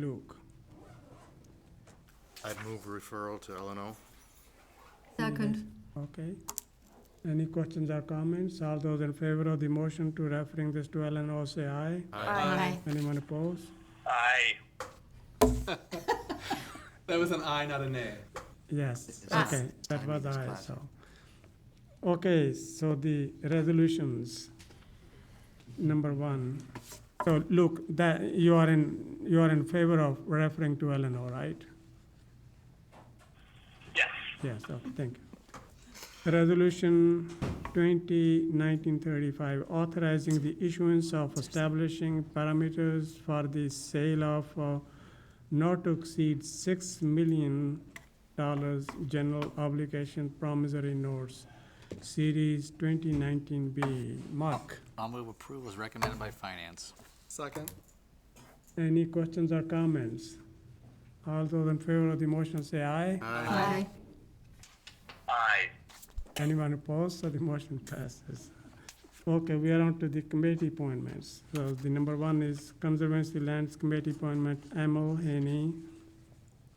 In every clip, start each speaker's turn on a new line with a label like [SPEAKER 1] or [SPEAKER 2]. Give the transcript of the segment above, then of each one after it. [SPEAKER 1] Luke.
[SPEAKER 2] I'd move referral to LNO.
[SPEAKER 3] Second.
[SPEAKER 1] Okay. Any questions or comments? All those in favor of the motion to referring this to LNO, say aye.
[SPEAKER 3] Aye.
[SPEAKER 1] Anyone opposed?
[SPEAKER 4] Aye.
[SPEAKER 5] That was an I, not a nay.
[SPEAKER 1] Yes,
[SPEAKER 3] Aye.
[SPEAKER 1] okay, that was
[SPEAKER 2] Timing is
[SPEAKER 1] aye,
[SPEAKER 2] bad.
[SPEAKER 1] so. Okay, so the resolutions, number one. So Luke, that, you are in, you are in favor of referring to LNO, right?
[SPEAKER 4] Yes.
[SPEAKER 1] Yes, okay, thank you. Resolution 2019-35, authorizing the issuance of establishing parameters for the sale of uh, not to exceed $6 million general obligation promissory notes, Series 2019B. Mark,
[SPEAKER 6] I'll move approval as recommended by finance.
[SPEAKER 5] Second.
[SPEAKER 1] any questions or comments? All those in favor of the motion say aye.
[SPEAKER 3] Aye.
[SPEAKER 4] Aye.
[SPEAKER 1] Anyone opposed? So the motion passes. Okay, we are on to the committee appointments. So the number one is Conservancy Lands Committee appointment, Emil Haney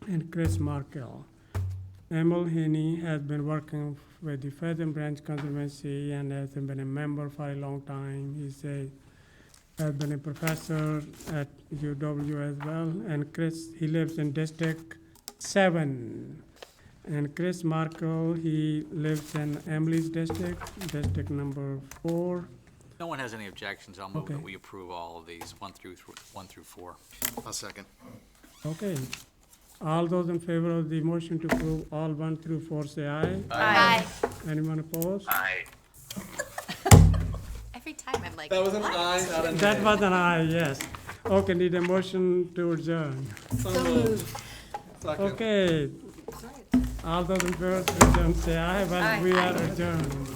[SPEAKER 1] and Chris Markell. Emil Haney has been working with the Pheasant Branch Conservancy and has been a member for a long time. He's a, has been a professor at UW as well. And Chris, he lives in District Seven. And Chris Markell, he lives in Emily's district, district number four.
[SPEAKER 6] No one has any objections. I'll move
[SPEAKER 1] Okay.
[SPEAKER 6] that we approve all of these, one through, th- one through four.
[SPEAKER 2] I'll second.
[SPEAKER 1] Okay. All those in favor of the motion to approve all one through four, say aye.
[SPEAKER 3] Aye.
[SPEAKER 1] Anyone opposed?
[SPEAKER 4] Aye.
[SPEAKER 3] Every time I'm like,
[SPEAKER 5] That was an I, not a nay.
[SPEAKER 1] That was an aye, yes. Okay, need a motion to adjourn.
[SPEAKER 3] so moved.
[SPEAKER 5] Second.
[SPEAKER 1] Okay. All those in favor to adjourn, say aye, but we are adjourned.